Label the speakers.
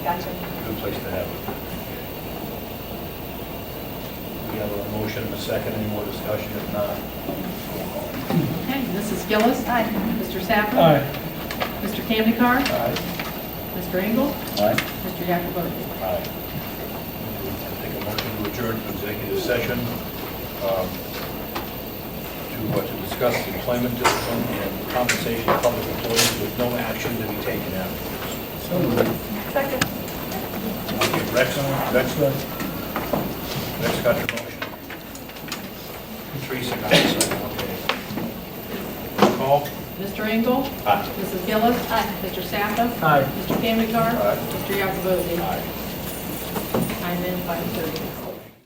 Speaker 1: place to have it. We have a motion, a second, any more discussion? If not, roll call.
Speaker 2: Okay, Mrs. Gillis. Aye. Mr. Sapper.
Speaker 3: Aye.
Speaker 2: Mr. Camden Carr.
Speaker 1: Aye.
Speaker 2: Mr. Engel.
Speaker 3: Aye.
Speaker 2: Mr. Yakubowicz.
Speaker 1: Aye. I Take a motion to adjourn to executive session um, to, uh, to discuss employment discipline and compensation of public employees with no action to be taken afterwards.
Speaker 3: So moved.
Speaker 4: Second.
Speaker 1: Okay, Rex, Rex, Rex got your motion. Teresa got the second, okay. Roll Call?
Speaker 2: Mr. Engel.
Speaker 1: Aye.
Speaker 2: Mrs. Gillis. Aye. Mr. Sapper.
Speaker 3: Aye.
Speaker 2: Mr. Camden Carr.
Speaker 1: Aye.
Speaker 2: Mr. Yakubowicz.
Speaker 1: Aye.
Speaker 2: I'm in 5:30.